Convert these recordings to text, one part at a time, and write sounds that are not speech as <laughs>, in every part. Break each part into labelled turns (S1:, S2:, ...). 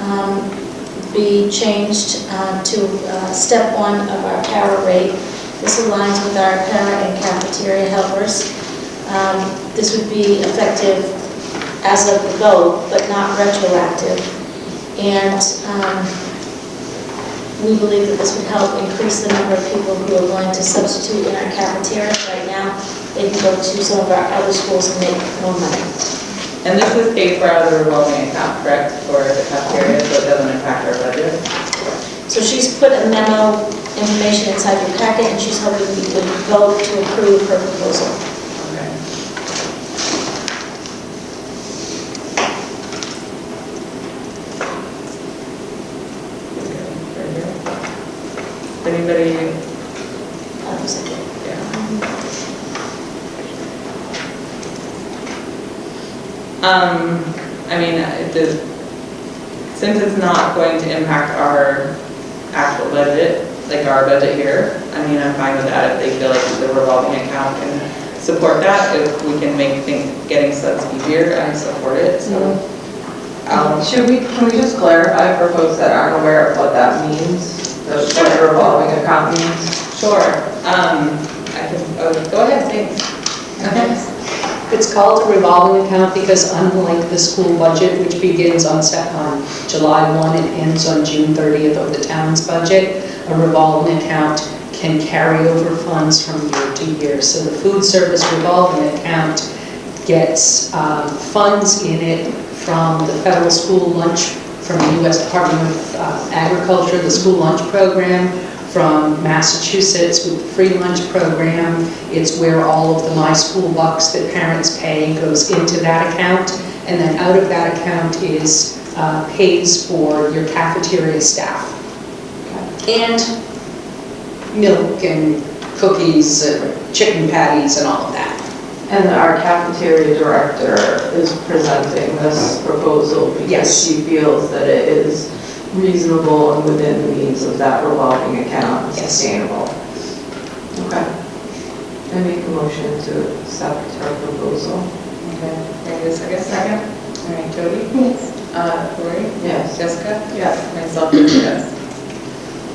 S1: um, be changed uh, to uh, step one of our para rate. This aligns with our para and cafeteria helpers. Um, This would be effective as of the vote, but not retroactive. And um, we believe that this would help increase the number of people who are going to substitute in our cafeterias right now. They can go to some of our other schools and make more money.
S2: And this is paid for out of the revolving account, correct, for the cafeteria, so it doesn't impact our budget?
S1: So she's put a memo information inside your packet, and she's hoping you would vote to approve her proposal.
S2: Okay. Anybody,
S1: That was it.
S2: yeah. Um, I mean, it does, since it's not going to impact our actual budget, like our budget here, I mean, I'm fine with that if they feel like the revolving account can support that, if we can make things, getting subs easier, I support it, so.
S3: Um, Should we, can we just clarify for folks that aren't aware of what that means? The what a revolving account means?
S2: Sure, um, I can, oh, go ahead, thanks.
S4: It's called a revolving account because unlike the school budget, which begins on Sep- on July 1 and ends on June 30th of the town's budget, a revolving account can carry over funds from year to year. So the food service revolving account gets um, funds in it from the federal school lunch, from the U.S. Department of uh, Agriculture, the school lunch program, from Massachusetts with the free lunch program. It's where all of the My School Bucks that parents pay goes into that account. And then out of that account is, uh, pays for your cafeteria staff. And milk and cookies, and chicken patties and all of that.
S3: And our cafeteria director is presenting this proposal because
S4: Yes.
S3: she feels that it is reasonable and within the means of that revolving account, and
S4: Yes.
S3: sustainable. Okay. I make a motion to accept her proposal.
S2: Okay, Is there a second? All right, Jody? Yes. Uh, Lori?
S3: Yes.
S2: Jessica?
S3: Yes.
S2: Myself, yes.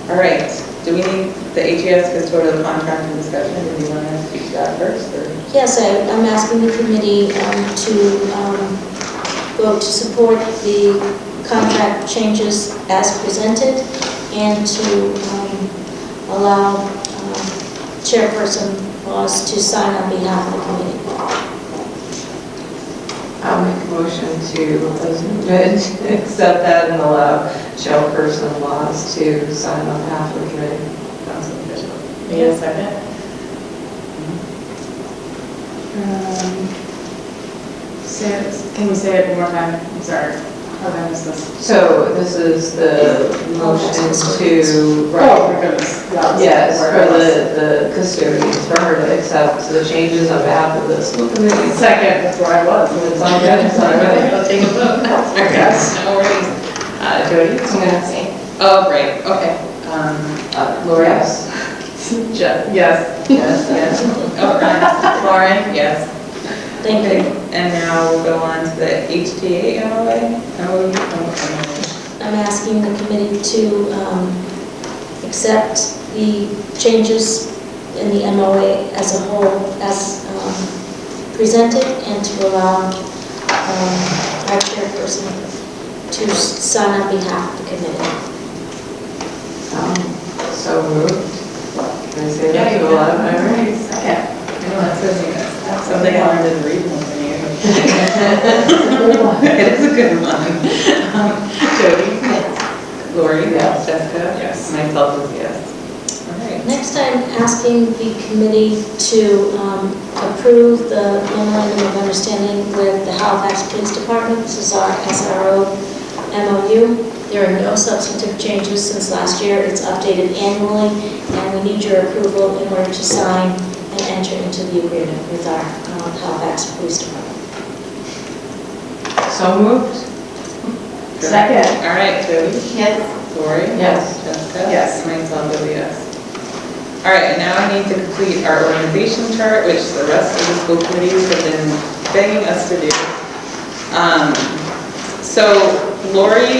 S2: All right, do we need the HES custodial contract and discussion? Do you want to speak to that first, or?
S1: Yes, I- I'm asking the committee um, to um, vote to support the contract changes as presented and to um, allow um, Chairperson Laws to sign on behalf of the committee.
S3: I'll make a motion to, as noted, accept that and allow Shell Person Laws to sign on behalf of the committee.
S2: Need a second?
S5: Say it, can you say it one more time? I'm sorry. Oh, How long is this?
S3: So this is the motion to,
S5: Oh,
S3: right,
S5: my goodness. Yeah,
S3: yes,
S5: where it
S3: for
S5: was.
S3: the, the custodians, for her to accept the changes on behalf of the school committee.
S5: Second, that's where I was.
S3: It's all good, it's all good.
S5: I'll take a look.
S2: Yes. No worries. Uh, Jody? Oh, right, okay. Um,
S3: <laughs> Uh, Laura, yes?
S5: <laughs>
S2: Jeff?
S5: Yes.
S3: Yes.
S2: Yes. All right, Lauren? Yes.
S1: Thank you.
S2: Okay, and now we'll go on to the HTA MOA. MOU? Oh,
S1: I'm asking the committee to um, accept the changes in the MOA as a whole as um, presented and to allow um, our chairperson to sign on behalf of the committee.
S3: Um, So moved. Can I say that
S5: Yeah,
S3: to
S5: you
S3: a lot of
S5: did.
S3: members?
S5: Second.
S2: MOU. I know, that says you guys. Something I learned in reading from <laughs> you. It is a good one. Um, <laughs> Jody? Yes. Lori?
S3: Yes.
S2: Jessica?
S5: Yes.
S2: Myself is yes. All right.
S1: Next, I'm asking the committee to um, approve the memorandum of understanding with the Halifax Police Department. This is our SRO MOU. There are no substantive changes since last year. It's updated annually, and we need your approval in order to sign and enter into the agreement with our um, Halifax Police Department.
S3: So moved?
S5: Second.
S2: All right, Jody?
S5: Yes.
S2: Lori?
S3: Yes.
S2: Jessica?
S5: Yes.
S2: Myself is yes. All right, and now I need to complete our organization chart, which the rest of the school committees have been begging us to do. Um, So Lori